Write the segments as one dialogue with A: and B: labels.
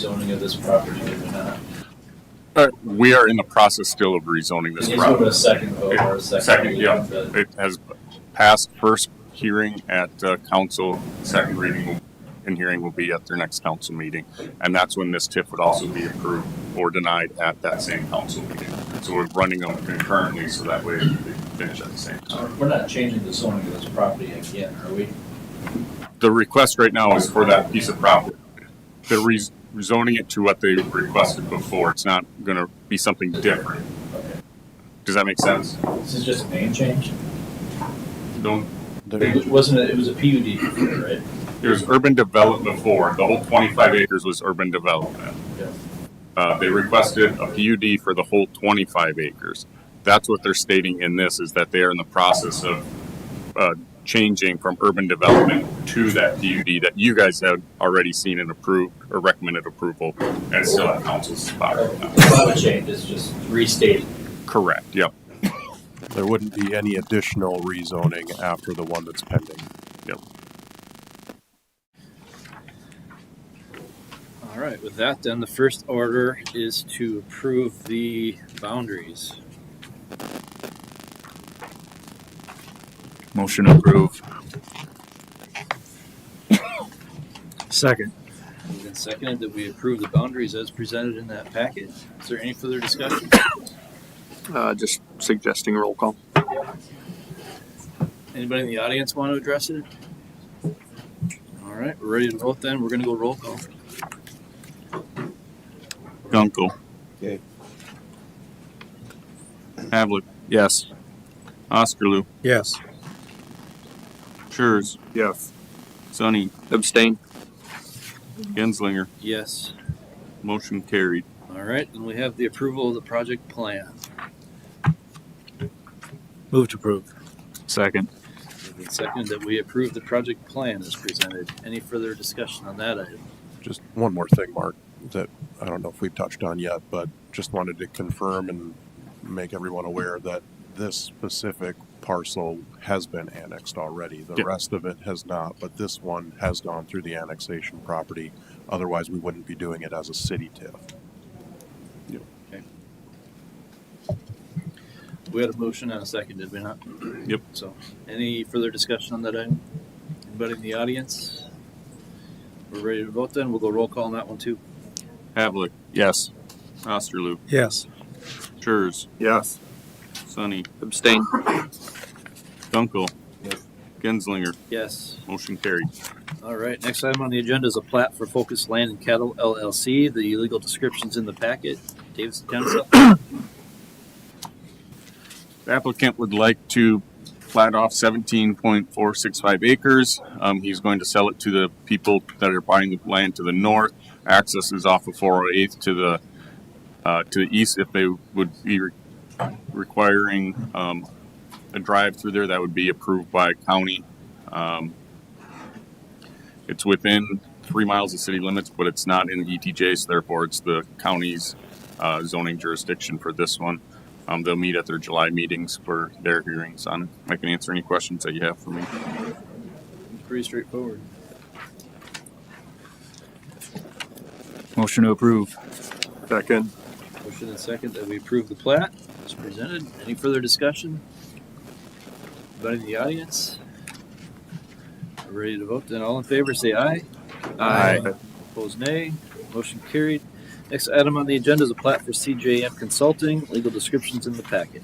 A: zoning of this property, did we not?
B: Uh, we are in the process still of rezoning this
A: He's moving a
B: property.
A: second vote or a second.
B: Second, yeah.
A: but-
B: It has passed first hearing at uh, council, second reading will- and hearing will be at their next council meeting. And that's when this TIF would also be approved or denied at that same council meeting. So we're running them concurrently so that way they finish at the same time.
A: So uh, We're not changing the zoning of this property again, are we?
B: The request right now is for that piece of property. They're rez- rezoning it to what they requested before. It's not gonna be something different.
A: Okay.
B: Does that make sense?
A: This is just a name change?
B: Don't
A: It wasn't, a- it was a PUD before, right?
B: There was urban development before. The whole 25 acres was urban development.
A: Yeah.
B: Uh, they requested a PUD for the whole 25 acres. That's what they're stating in this is that they are in the process of uh, changing from urban development to that PUD that you guys had already seen and approved or recommended approval and still at council's spot right now.
A: It's not a change, it's just restated.
B: Correct. Yep.
C: There wouldn't be any additional rezoning after the one that's pending.
D: All right, with that, then the first order is to approve the boundaries.
E: Motion approved.
D: Second. Moved and seconded that we approve the boundaries as presented in that packet. Is there any further discussion?
E: Uh, just suggesting roll call.
D: Anybody in the audience want to address it? All right, we're ready to vote then. We're gonna go roll call.
E: Gunkel.
C: Yay.
E: Havlet. Yes. Osterloo.
C: Yes.
E: Schurz.
C: Yes.
E: Sonny. Abstain. Genslinger.
D: Yes.
E: Motion carried.
D: All right, and we have the approval of the project plan.
F: Move to approve.
E: Second.
D: Moved and seconded that we approve the project plan as presented. Any further discussion on that item?
C: Just one more thing, Mark, that I don't know if we've touched on yet, but just wanted to confirm and make everyone aware that this specific parcel has been annexed already. The
B: Yeah.
C: rest of it has not, but this one has gone through the annexation property. Otherwise, we wouldn't be doing it as a city TIF.
D: We had a motion and a second, did we not?
E: Yep.
D: So, any further discussion on that item? Anybody in the audience? We're ready to vote then. We'll go roll call on that one too.
E: Havlet.
B: Yes.
E: Osterloo.
F: Yes.
E: Schurz.
C: Yes.
E: Sonny. Abstain. Gunkel. Genslinger.
D: Yes.
E: Motion carried.
D: All right. Next item on the agenda is a plat for Focus Land and Cattle LLC. The legal description's in the packet. Davis Council.
B: The applicant would like to plat off seventeen point four six five acres. Um, he's going to sell it to the people that are buying the land to the north. Access is off of four oh eighth to the, uh, to the east if they would be re- requiring, um, a drive through there that would be approved by county. Um, it's within three miles of city limits, but it's not in ETJ, so therefore it's the county's, uh, zoning jurisdiction for this one. Um, they'll meet at their July meetings for their hearings on. it. I can answer any questions that you have for me.
D: Pretty straightforward.
E: Motion to approve.
C: Second.
D: Motion and second that we approve the plat as presented. Any further discussion? Anybody in the audience? We're Ready to vote then? All in favor, say aye. Opposed, nay. Motion carried. Next item on the agenda is a plat for CJM Consulting. Legal description's in the packet.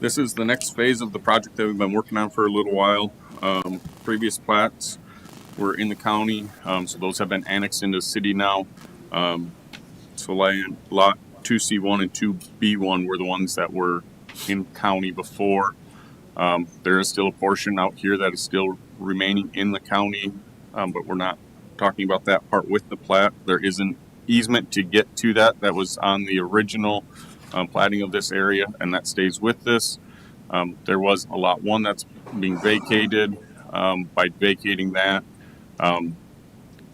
B: This is the next phase of the project that we've been working on for a little while. Um, previous plats were in the county, um, so those have been annexed into the city now. Um, so land, lot two C one and two B one were the ones that were in county before. Um, there is still a portion out here that is still remaining in the county, um, but we're not talking about that part with the plat. There is an easement to get to that that was on the original um, plating of this area, and that stays with this. Um, there was a lot one that's being vacated. Um, by vacating that, um,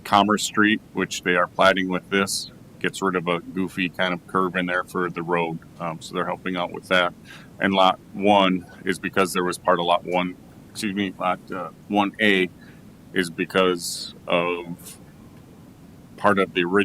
B: Commerce Street, which they are plating with this, gets rid of a goofy kind of curve in there for the road. Um, so they're helping out with that. And lot one is because there was part of lot one, excuse me, lot uh, 1A is because of part of the original.